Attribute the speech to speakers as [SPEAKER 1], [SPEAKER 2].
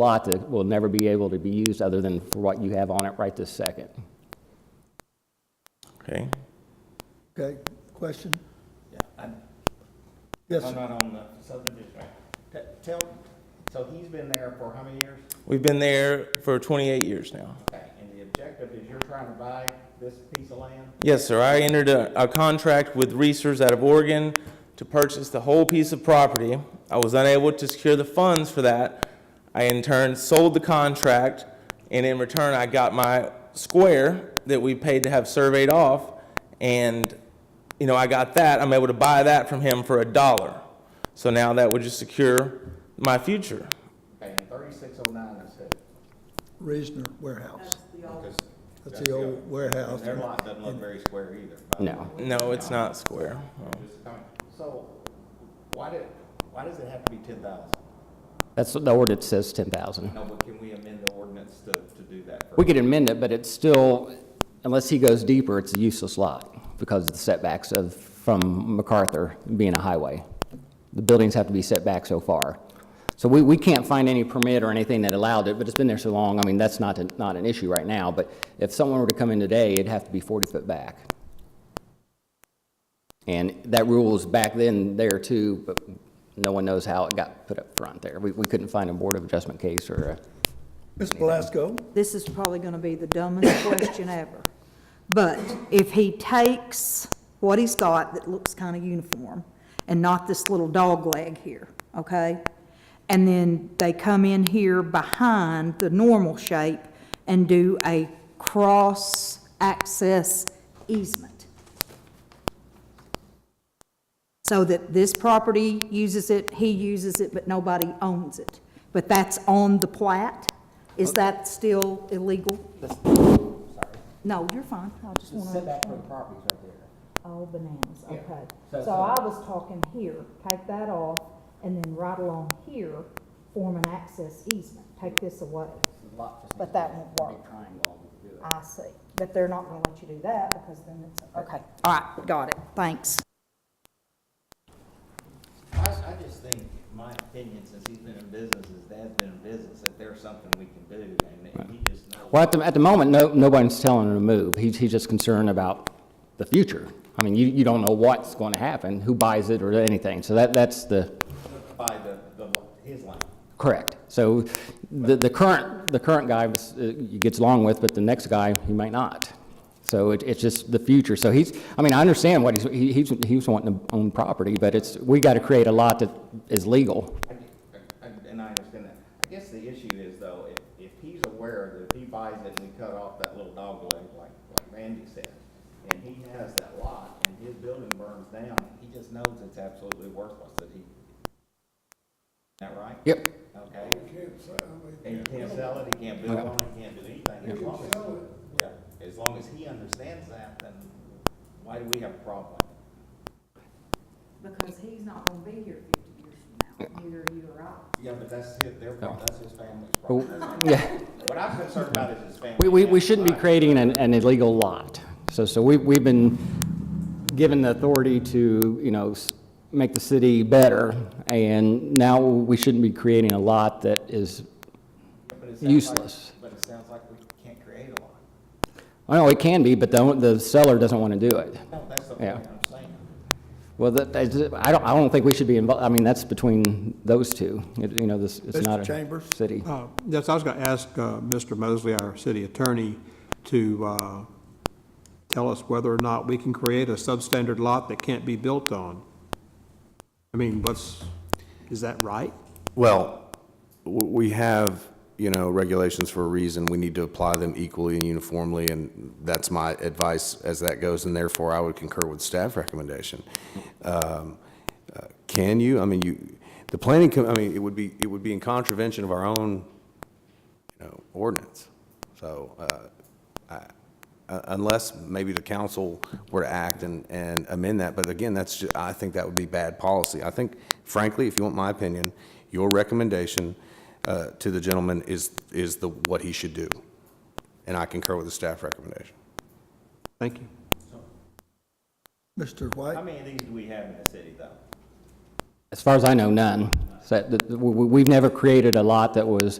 [SPEAKER 1] lot that will never be able to be used other than for what you have on it right this second.
[SPEAKER 2] Okay.
[SPEAKER 3] Okay, question? Yes,
[SPEAKER 4] I'm
[SPEAKER 3] sir.
[SPEAKER 4] not on the subdivision, right? T- Tell, so he's been there for how many years?
[SPEAKER 2] We've been there for 28 years now.
[SPEAKER 4] Okay, and the objective is you're trying to buy this piece of land?
[SPEAKER 2] Yes, sir. I entered a, a contract with Reesers out of Oregon to purchase the whole piece of property. I was unable to secure the funds for that. I in turn sold the contract, and in return, I got my square that we paid to have surveyed off, and you know I got that. I'm able to buy that from him for a dollar. So now that would just secure my future.
[SPEAKER 4] Okay, and thirty-six oh nine is who?
[SPEAKER 3] Reasoner Warehouse.
[SPEAKER 4] Because
[SPEAKER 3] That's the old warehouse.
[SPEAKER 4] Their lot doesn't look very square either. by the way.
[SPEAKER 1] No.
[SPEAKER 2] No, it's not square.
[SPEAKER 4] Just comment. So, why did, why does it have to be ten thousand?
[SPEAKER 1] That's what the ordinance says, 10,000.
[SPEAKER 4] No, but can we amend the ordinance to, to do that?
[SPEAKER 1] We could amend it, but it's still, unless he goes deeper, it's a useless lot because of the setbacks of, from MacArthur being a highway. The buildings have to be set back so far. So we, we can't find any permit or anything that allowed it, but it's been there so long, I mean, that's not, a- not an issue right now. But if someone were to come in today, it'd have to be 40 foot back. And that rule was back then there too, but no one knows how it got put up front there. We, we couldn't find a Board of Adjustment case or a
[SPEAKER 3] Ms. Belasco,
[SPEAKER 5] this is probably going to be the dumbest question ever. But if he takes what he's got that looks kind of uniform and not this little dog leg here, okay? And then they come in here behind the normal shape and do a cross-access easement so that this property uses it, he uses it, but nobody owns it. But that's on the plat? Is that still illegal? No, you're fine, I just want to. Setback for the properties right there. Oh, bananas, okay. So I was talking here, take that off, and then right along here, form an access easement, take this away. But that won't work. I see, but they're not going to let you do that because then it's, okay, all right, got it, thanks.
[SPEAKER 4] I, I just think, my opinion, since he's been in business, his dad's been in business, that there's something we can do, and that he just knows.
[SPEAKER 1] Well, at the, at the moment, no, nobody's telling him to move. He's, he's just concerned about the future. I mean, you, you don't know what's going to happen, who buys it or anything. So that, that's the,
[SPEAKER 4] by the, the, his line.
[SPEAKER 1] correct. So the, the current, the current guy was, uh, gets along with, but the next guy, he might not. So it, it's just the future. So he's, I mean, I understand what he's, he, he's, he was wanting to own property, but it's, we got to create a lot that is legal.
[SPEAKER 4] I get- I- I- And I understand that. I guess the issue is though, if, if he's aware that if he buys it and we cut off that little dog leg, like, like Randy said, and he has that lot and his building burns down, he just knows it's absolutely worthless that he, is that right?
[SPEAKER 1] Yep.
[SPEAKER 4] Okay? And you can't sell it, he can't build on it, he can't do anything, as long as, yeah, as long as he understands that, then why do we have a problem with it?
[SPEAKER 5] Because he's not gonna be here fifty years from now, either you or I.
[SPEAKER 4] Yeah, but that's his, their problem, that's his family's
[SPEAKER 1] But-
[SPEAKER 4] problem.
[SPEAKER 1] Yeah.
[SPEAKER 4] What I'm concerned about is his family.
[SPEAKER 1] We, we, we shouldn't be creating an, an illegal lot. So, so we, we've been given the authority to, you know, s- make the city better, and now we shouldn't be creating a lot that is,
[SPEAKER 4] But it sounds like-
[SPEAKER 1] useless.
[SPEAKER 4] But it sounds like we can't create a lot.
[SPEAKER 1] I know it can be, but the, own- the seller doesn't want to do it.
[SPEAKER 4] No, that's the
[SPEAKER 1] Yeah.
[SPEAKER 4] point I'm saying.
[SPEAKER 1] Well, that, that's- I don't, I don't think we should be involved, I mean, that's between those two. It- You know, this, it's
[SPEAKER 3] Mr.
[SPEAKER 1] not a
[SPEAKER 3] Chambers?
[SPEAKER 1] city.
[SPEAKER 6] Uh, Yes, I was going to ask uh, Mr. Mosley, our city attorney, to uh, tell us whether or not we can create a substandard lot that can't be built on. I mean, what's, is that right?
[SPEAKER 7] Well, w- we have, you know, regulations for a reason. We need to apply them equally and uniformly, and that's my advice as that goes, and therefore I would concur with staff recommendation. Um, uh, Can you, I mean, you, the planning, com- I mean, it would be, it would be in contravention of our own, you know, ordinance. So uh, I- uh, unless maybe the council were to act and, and amend that, but again, that's, ju- I think that would be bad policy. I think frankly, if you want my opinion, your recommendation uh, to the gentleman is, is the, what he should do. And I concur with the staff recommendation.
[SPEAKER 6] Thank you.
[SPEAKER 3] Mr.
[SPEAKER 4] How
[SPEAKER 3] White,
[SPEAKER 4] many of these do we have in the city, though?
[SPEAKER 1] As far as I know, none. So that- that- we, we- we've never created a lot that was